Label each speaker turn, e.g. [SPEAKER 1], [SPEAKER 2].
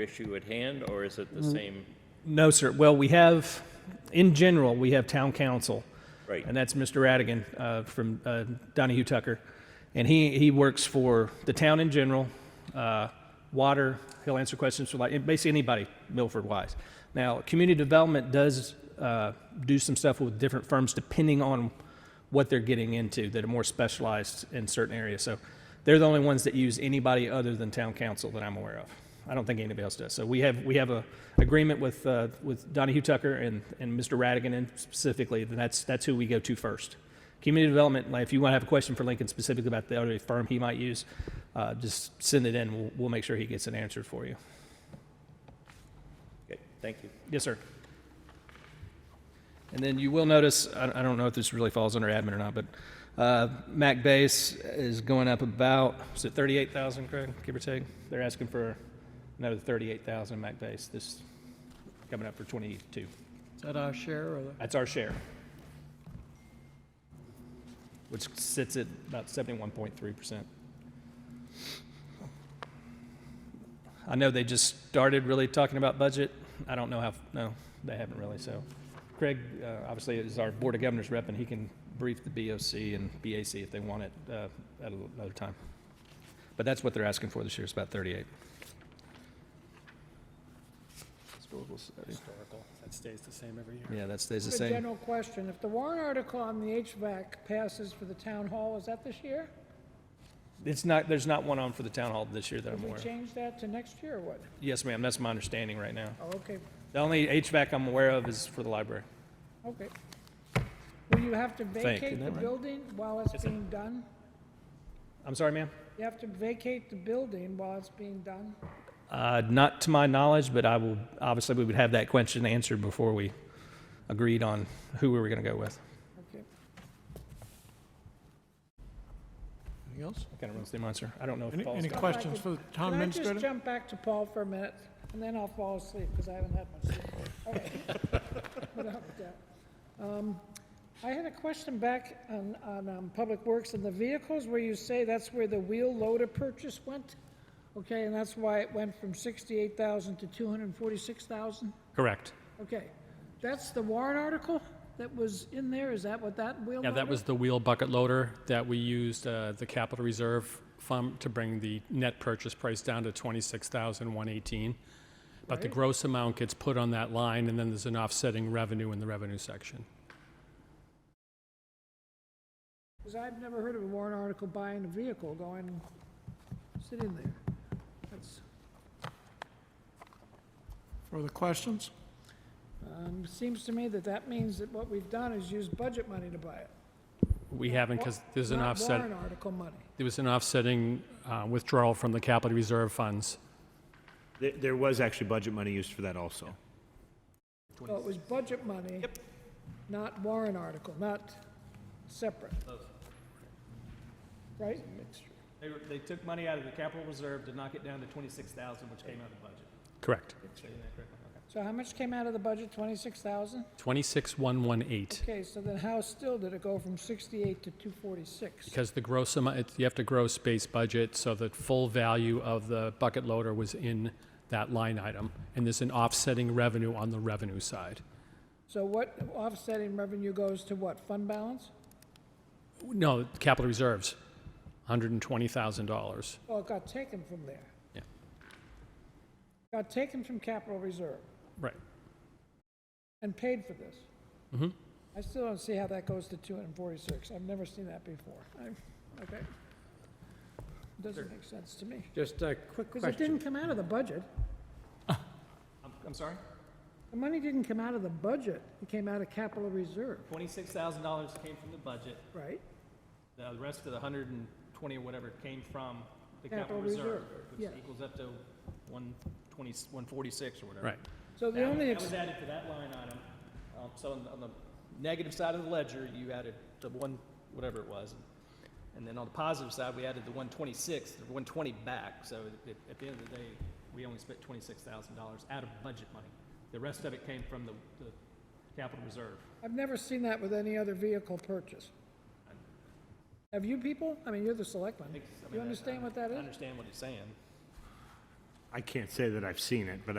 [SPEAKER 1] issue at hand, or is it the same?
[SPEAKER 2] No, sir. Well, we have, in general, we have town council.
[SPEAKER 1] Right.
[SPEAKER 2] And that's Mr. Radigan uh, from uh, Donahue Tucker. And he, he works for the town in general, uh, water, he'll answer questions for like, basically anybody Milford-wise. Now, community development does uh, do some stuff with different firms depending on what they're getting into that are more specialized in certain areas. So they're the only ones that use anybody other than town council that I'm aware of. I don't think anybody else does. So we have, we have a agreement with, uh, with Donahue Tucker and, and Mr. Radigan and specifically, then that's, that's who we go to first. Community development, like if you want to have a question for Lincoln specifically about the other firm he might use, uh, just send it in. We'll, we'll make sure he gets it answered for you.
[SPEAKER 1] Okay, Thank you.
[SPEAKER 2] Yes, sir. And then you will notice, I I don't know if this really falls under admin or not, but uh, Mac base is going up about, is it 38,000, Craig, give or take? They're asking for another 38,000 Mac base, this, coming up for 22.
[SPEAKER 3] Is that our share or? the-
[SPEAKER 2] That's our share. Which sits at about 71.3%. I know they just started really talking about budget. I don't know how, no, they haven't really, so. Craig, uh, obviously, is our Board of Governors rep, and he can brief the BOC and BAC if they want it uh, at another time. But that's what they're asking for this year, it's about 38. Historical study.
[SPEAKER 4] historical. That stays the same every year.
[SPEAKER 2] Yeah, that stays the
[SPEAKER 5] A
[SPEAKER 2] same.
[SPEAKER 5] general question, if the warrant article on the HVAC passes for the town hall, is that this year?
[SPEAKER 2] It's not, there's not one on for the town hall this year that I'm
[SPEAKER 5] Did we
[SPEAKER 2] aware of.
[SPEAKER 5] change that to next year or what?
[SPEAKER 2] Yes, ma'am, that's my understanding right now.
[SPEAKER 5] Oh, okay,
[SPEAKER 2] The only HVAC I'm aware of is for the library.
[SPEAKER 5] okay. Will you have to
[SPEAKER 2] Think, isn't
[SPEAKER 5] vacate the
[SPEAKER 2] that right?
[SPEAKER 5] building while it's being done?
[SPEAKER 2] I'm sorry, ma'am?
[SPEAKER 5] You have to vacate the building while it's being done?
[SPEAKER 2] Uh, Not to my knowledge, but I will, obviously, we would have that question answered before we agreed on who we were going to go with.
[SPEAKER 5] Okay.
[SPEAKER 3] Anything else?
[SPEAKER 2] That Kind of runs through mine, sir. I don't know if
[SPEAKER 4] Any,
[SPEAKER 2] Paul's
[SPEAKER 4] any
[SPEAKER 2] got-
[SPEAKER 4] questions for the town
[SPEAKER 5] Can I just
[SPEAKER 4] administrator?
[SPEAKER 5] jump back to Paul for a minute, and then I'll fall asleep, because I haven't had much sleep. Okay. Without that. Um, I had a question back on, on um, Public Works and the vehicles, where you say that's where the wheel loader purchase went? Okay, and that's why it went from 68,000 to 246,000?
[SPEAKER 6] Correct.
[SPEAKER 5] Okay, that's the warrant article that was in there, is that what that wheel loader?
[SPEAKER 6] Yeah, that was the wheel bucket loader that we used uh, the capital reserve fund to bring the net purchase price down to 26,118. But the gross amount gets put on that line, and then there's an offsetting revenue in the revenue section.
[SPEAKER 5] Because I've never heard of a warrant article buying a vehicle going, sitting there. That's,
[SPEAKER 3] Further questions?
[SPEAKER 5] um, seems to me that that means that what we've done is use budget money to buy it.
[SPEAKER 6] We haven't, because there's an
[SPEAKER 5] not
[SPEAKER 6] offset,
[SPEAKER 5] warrant article money.
[SPEAKER 6] there was an offsetting uh, withdrawal from the capital reserve funds.
[SPEAKER 7] There, there was actually budget money used for that also.
[SPEAKER 5] So it was budget money, not warrant article, not separate. Right?
[SPEAKER 2] They were- They took money out of the capital reserve to knock it down to 26,000, which came out of the budget.
[SPEAKER 6] Correct.
[SPEAKER 5] So how much came out of the budget? Twenty-six thousand?
[SPEAKER 6] 26,118.
[SPEAKER 5] Okay, so then how still did it go from sixty-eight to two forty-six?
[SPEAKER 6] Because the gross amount, it's- you have to gross base budget, so the full value of the bucket loader was in that line item, and there's an offsetting revenue on the revenue side.
[SPEAKER 5] So what offsetting revenue goes to what? Fund balance?
[SPEAKER 6] No, capital reserves, $120,000.
[SPEAKER 5] Well, it got taken from there.
[SPEAKER 6] Yeah.
[SPEAKER 5] Got taken from capital reserve
[SPEAKER 6] Right.
[SPEAKER 5] and paid for this. I still don't see how that goes to 246. I've never seen that before. I, okay. Doesn't make sense to me.
[SPEAKER 4] Just a quick
[SPEAKER 5] Because it didn't
[SPEAKER 4] question.
[SPEAKER 5] come out of the budget.
[SPEAKER 2] I'm- I'm sorry?
[SPEAKER 5] The money didn't come out of the budget. It came out of capital reserve,
[SPEAKER 2] $26,000 came from the budget.
[SPEAKER 5] right?
[SPEAKER 2] The rest of the 120 or whatever came from the
[SPEAKER 5] Capital reserve, yeah.
[SPEAKER 2] equals up to 120, 146 or whatever.
[SPEAKER 6] Right.
[SPEAKER 5] So the
[SPEAKER 2] That
[SPEAKER 5] only,
[SPEAKER 2] that
[SPEAKER 5] ex-
[SPEAKER 2] was added to that line item. Um, So on the- on the negative side of the ledger, you added the one, whatever it was. And then on the positive side, we added the 126, the 120 back. So at- at the end of the day, we only spent $26,000 out of budget money. The rest of it came from the the capital reserve.
[SPEAKER 5] I've never seen that with any other vehicle purchase. Have you people? I mean, you're the selectman.
[SPEAKER 2] I think- I mean,
[SPEAKER 5] You
[SPEAKER 2] I-
[SPEAKER 5] understand what that
[SPEAKER 2] I
[SPEAKER 5] is?
[SPEAKER 2] understand what he's saying.
[SPEAKER 7] I can't say that I've seen it, but I.